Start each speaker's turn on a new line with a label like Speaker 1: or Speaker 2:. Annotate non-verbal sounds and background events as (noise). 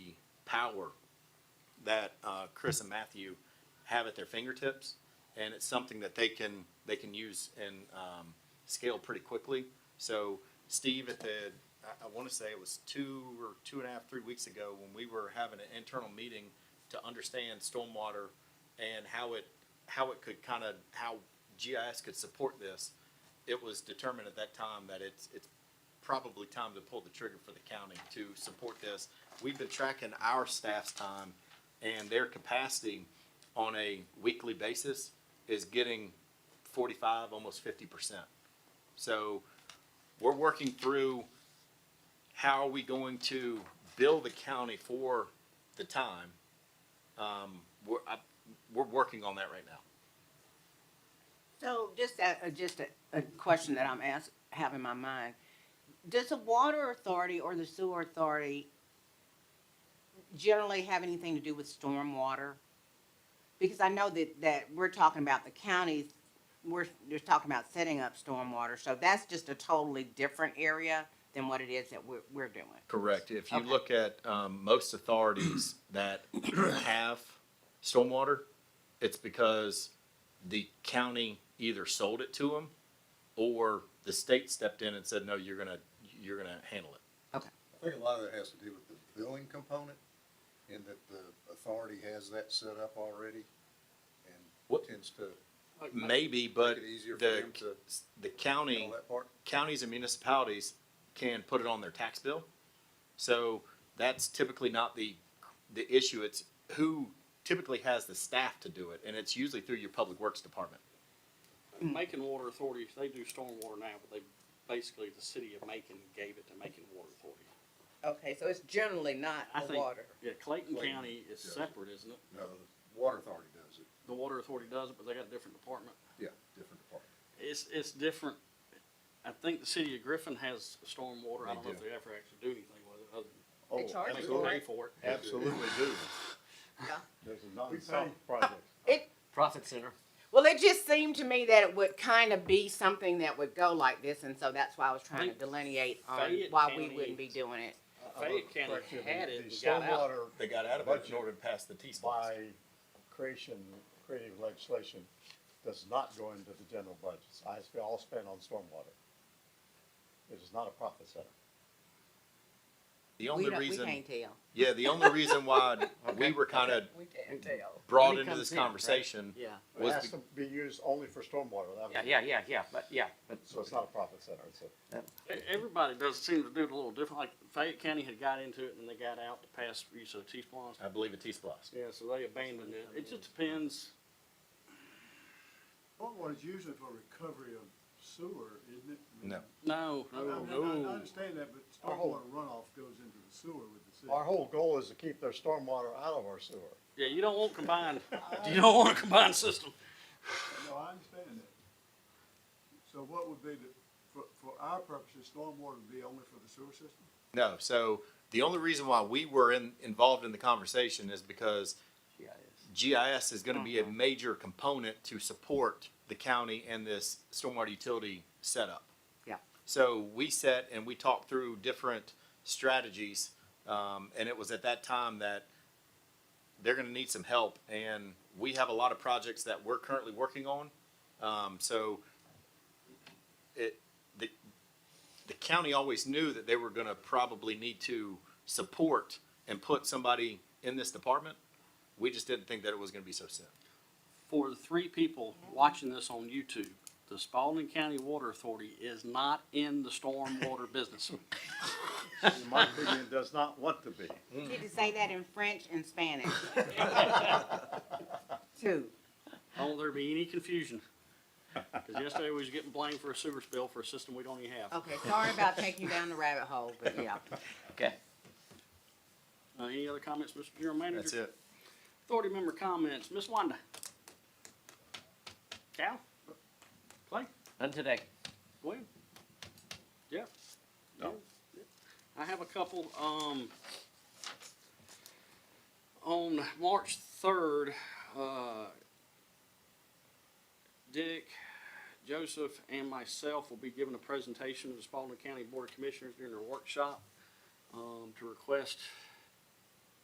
Speaker 1: power that uh, Chris and Matthew have at their fingertips, and it's something that they can they can use and um, scale pretty quickly. So Steve, at the I, I want to say it was two or two and a half, three weeks ago when we were having an internal meeting to understand stormwater and how it how it could kind of how GIS could support this. It was determined at that time that it's it's probably time to pull the trigger for the county to support this. We've been tracking our staff's time and their capacity on a weekly basis is getting forty-five, almost fifty percent. So we're working through how are we going to bill the county for the time? Um, we're, I, we're working on that right now.
Speaker 2: So just a, a- just a, a question that I'm ask, have in my mind. Does the water authority or the sewer authority generally have anything to do with stormwater? Because I know that, that we're talking about the counties, we're just talking about setting up stormwater, so that's just a totally different area than what it is that we're, we're doing.
Speaker 1: Correct. If you
Speaker 2: Okay.
Speaker 1: look at um, most
Speaker 3: (clears throat)
Speaker 1: authorities that have stormwater, it's because the county either sold it to them or the state stepped in and said, no, you're gonna, you're gonna handle it.
Speaker 3: I think a lot of that has to do with the billing component, in that the authority has that set up already, and
Speaker 1: What-
Speaker 3: tends to
Speaker 1: Maybe, but
Speaker 3: Make it easier for
Speaker 1: the,
Speaker 3: them to-
Speaker 1: the county.
Speaker 3: handle that part.
Speaker 1: counties and municipalities can put it on their tax bill. So that's typically not the, the issue. It's who typically has the staff to do it, and it's usually through your public works department.
Speaker 4: Macon Water Authority, they do stormwater now, but they, basically, the city of Macon gave it to Macon Water Authority.
Speaker 2: Okay, so it's generally not
Speaker 4: I think, yeah, Clayton County is
Speaker 3: yeah.
Speaker 4: separate, isn't it?
Speaker 3: No, the water authority does it,
Speaker 4: The water authority does it, but they got a different department.
Speaker 3: yeah, different department.
Speaker 4: It's, it's different. I think the city of Griffin has stormwater.
Speaker 3: They
Speaker 4: I don't know if
Speaker 3: do.
Speaker 4: they ever actually do anything with it, other
Speaker 3: Oh,
Speaker 2: They charge us
Speaker 4: than make
Speaker 2: for
Speaker 4: them pay
Speaker 2: it.
Speaker 4: for it.
Speaker 3: Absolutely do.
Speaker 2: Yeah.
Speaker 3: There's a non-stop project.
Speaker 4: Profit center.
Speaker 2: Well, it just seemed to me that it would kind of be something that would go like this, and so that's why I was trying to
Speaker 4: Think
Speaker 2: delineate on
Speaker 4: Fayette
Speaker 2: why we
Speaker 4: County-
Speaker 2: wouldn't be doing it.
Speaker 4: Fayette County
Speaker 5: Correct,
Speaker 4: had
Speaker 5: the-
Speaker 4: it
Speaker 5: the
Speaker 4: and got out.
Speaker 5: stormwater
Speaker 1: They got out
Speaker 5: of it in
Speaker 1: order to pass the T
Speaker 5: By creation, creative legislation does not go into the general budgets. I sp- all spent on stormwater. It is not a profit center.
Speaker 1: The
Speaker 2: We
Speaker 1: only
Speaker 2: don't, we
Speaker 1: reason,
Speaker 2: can't tell.
Speaker 1: yeah, the only reason
Speaker 6: (laughs)
Speaker 1: why we were kind of
Speaker 2: We can't tell.
Speaker 1: brought
Speaker 6: When it
Speaker 1: into this
Speaker 6: comes in, right?
Speaker 1: conversation
Speaker 6: Yeah,
Speaker 5: It
Speaker 1: was,
Speaker 5: has
Speaker 1: be-
Speaker 5: to be used only for stormwater. that was-
Speaker 6: yeah, yeah, yeah, yeah, but, yeah, but,
Speaker 5: So it's not a profit center. It's a,
Speaker 4: E- Everybody does seem to do it a little different. Like Fayette County had got into it and they got out to pass use of T-Splons.
Speaker 1: I believe, a T-Splosh.
Speaker 4: Yeah, so they abandoned it. It just depends.
Speaker 7: Stormwater is usually for recovery of sewer, isn't it? I mean,
Speaker 1: No.
Speaker 4: No,
Speaker 7: I
Speaker 4: no,
Speaker 7: mean, I- I
Speaker 4: no.
Speaker 7: understand that, but
Speaker 5: Our whole-
Speaker 7: stormwater runoff goes into the sewer with the city.
Speaker 5: our whole goal is to keep their stormwater out of our sewer.
Speaker 4: Yeah, you don't want combined, (laughs) you don't want a combined system.
Speaker 7: No, I understand that. So what would be the, for, for our purposes, stormwater would be only for the sewer system?
Speaker 1: No, so the only reason why we were in, involved in the conversation is because GIS is gonna be
Speaker 6: Mm-hmm.
Speaker 1: a major component to support the county and this stormwater utility setup.
Speaker 2: Yeah.
Speaker 1: So we sat and we talked through different strategies, um, and it was at that time that they're gonna need some help, and we have a lot of projects that we're currently working on. Um, so it, the, the county always knew that they were gonna probably need to support and put somebody in this department. We just didn't think that it was gonna be so soon.
Speaker 4: For the three people watching this on YouTube, the Spalding County Water Authority is not in the stormwater business.
Speaker 5: In my opinion, does not want to be.
Speaker 1: Mm.
Speaker 2: Did you say that in French and
Speaker 4: (laughs)
Speaker 2: Spanish? Two.
Speaker 4: Don't there be any confusion. Cause yesterday we was getting blamed for a sewer spill for a system we don't even have.
Speaker 1: Oh.
Speaker 2: Okay, sorry about taking you down the rabbit hole, but yeah.
Speaker 6: okay.
Speaker 4: Uh, any other comments, Mr. General Manager?
Speaker 1: That's it.
Speaker 4: Authority member comments, Ms. Wanda. Cal? Clay?
Speaker 6: None today.
Speaker 4: Glenn? Jeff? No. I have a couple, um, on March third, uh, Dick, Joseph, and myself will be giving a presentation to the Spalding County Board of Commissioners during their workshop, um, to request